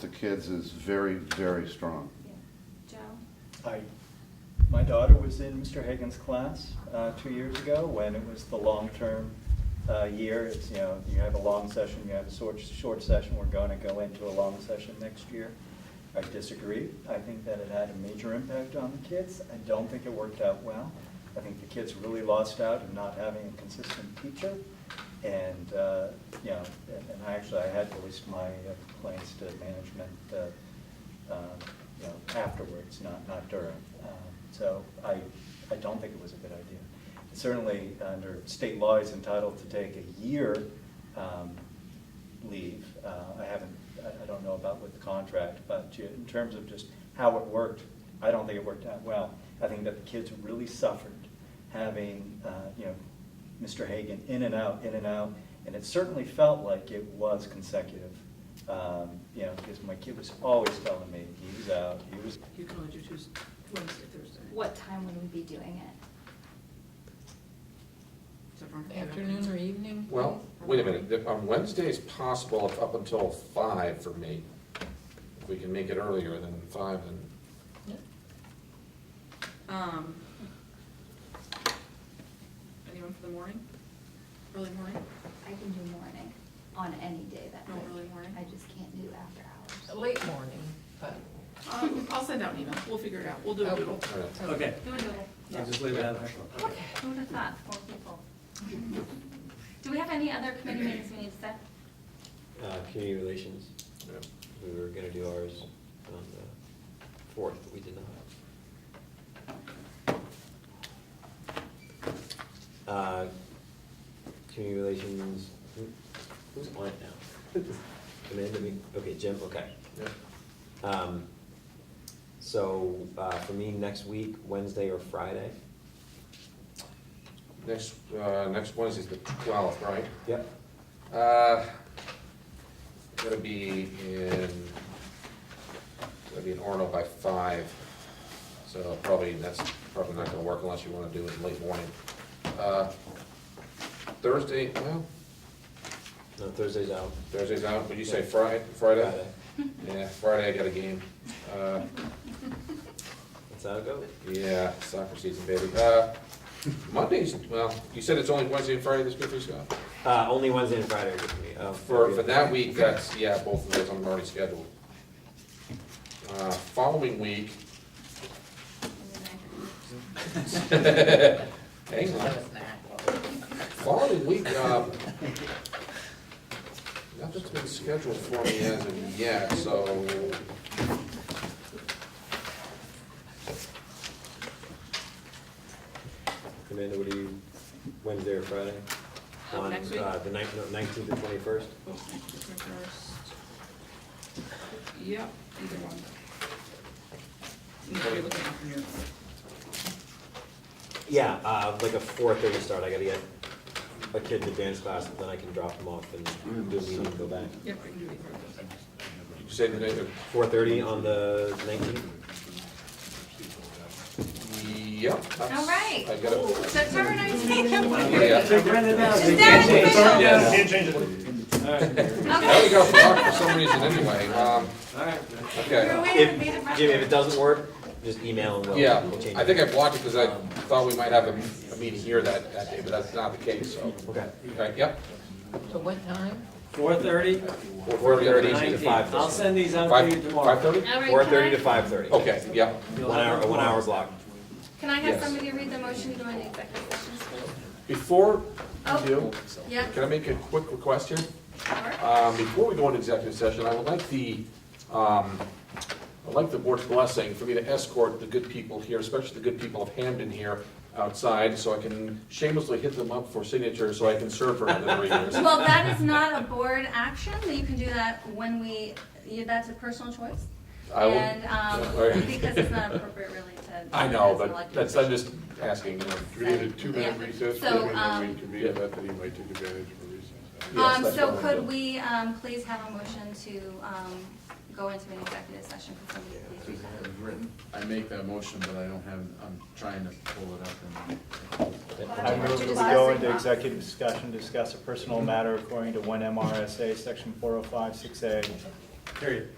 to kids is very, very strong. Yeah. Joe? I, my daughter was in Mr. Hagan's class uh, two years ago when it was the long-term uh, year. It's, you know, you have a long session, you have a short, short session, we're going to go into a long session next year. I disagree. I think that it had a major impact on the kids. I don't think it worked out well. I think the kids really lost out in not having a consistent teacher. And, uh, you know, and- and I actually, I had released my uh, complaints to management uh, um, you know, afterwards, not, not during. Um, So I, I don't think it was a good idea. Certainly, under state law, he's entitled to take a year um, leave. Uh, I haven't, I I don't know about with the contract, but ju- in terms of just how it worked, I don't think it worked out well. I think that the kids really suffered having, uh, you know, Mr. Hagan in and out, in and out, and it certainly felt like it was consecutive. Um, You know, because my kid was always telling me, he was out, he was, You can only do Tuesday, Wednesday, Thursday. What time would we be doing it? Is everyone okay? Mm-hmm. Afternoon or evening? Well, wait a minute, The- on Wednesday is possible up- up until five for me. If we can make it earlier than five, then, Yeah. Um, Anyone for the morning? Early morning? I can do morning on any day that No week. early morning? I just can't do after hours. Late morning, but. Oh. Um, I'll send out an email, we'll figure it out, we'll do a doodle. all right. Okay, Do a doodle. I'll just leave it at that. Okay. Who would have thought, four people? Do we have any other committee meetings we need to set? Uh, community relations, Yeah. we were gonna do ours on the fourth, but we did not. Uh, community relations, who- who's on it now? Amanda, me, okay, Jim, okay. Yeah. Um, so, uh, for me, next week, Wednesday or Friday? Next, uh, next Wednesday's the twelfth, right? Yep. Uh, Gotta be in, gotta be in Orno by five, so probably, that's probably not gonna work unless you wanna do it late morning. Uh, Thursday, well, No, Thursday's out. Thursday's out, would you say Friday, Friday? Friday. Yeah, Friday I got a game. Uh, That's how it goes. yeah, soccer season, baby. Uh, Mondays, well, you said it's only Wednesday and Friday this good for you, Scott? Uh, only Wednesday and Friday are good for me. Uh, For, for that week, that's, yeah, both of those I'm already scheduled. Uh, following week, hang on, following week, um, nothing's been scheduled for me as of yet, so. Amanda, what do you, Wednesday or Friday? Uh, On, next week? uh, The nineteenth, nineteenth and twenty-first? Oh, Tuesday first. Yep, either one. Need to be looking after your- Yeah, uh, like a four-thirty start, I gotta get a kid to dance class, and then I can drop them off and do a meeting and go back. Yep, we can do either of those. You said the night of- Four-thirty on the nineteenth? Yep. that's- All right. I got it. September nineteenth. Yeah. Is that official? Yes. There we Okay. go, for luck for some reason, anyway, um, We're okay, waiting If, to be the Jimmy, if it doesn't work, just email and we'll, yeah, we'll change it. I think I blocked it because Um, I thought we might have a, a meeting here that, that day, but that's not the case, so. Okay. Okay, yep, So what time? Four thirty? Four thirty Four-thirty to to five five. thirty. I'll send these out to you five, five tomorrow. thirty? All right, Four can I- thirty to five thirty. Okay, yep, You'll One have hour, them one tomorrow. hour's locked. Can I have Yes. somebody read the motion to go into executive session? before Oh. you do, Yeah, can I make a quick request here? sure. Um, Before we go into executive session, I would like the, um, I'd like the board's blessing for me to escort the good people here, especially the good people of Hamden here outside, so I can shamelessly hit them up for signatures, so I can serve for another three years. Well, that is not a board action, you can do that when we, you- that's a personal choice. I will- And, All um, right. because it's not appropriate really to. I know, as an but elected that's, I'm just asking. you know. We need a two-minute Yeah. recess, So, and then we um, convene, that he might take advantage of a recess. Yes, Um, that's so what I'm could doing. we, um, please have a motion to, um, go into an executive session? Could somebody please read that? I make that motion, but I don't have, I'm trying to pull it up and. I move that we go into executive discussion, discuss a personal matter according to one MRSA, section four oh five, six A. Period.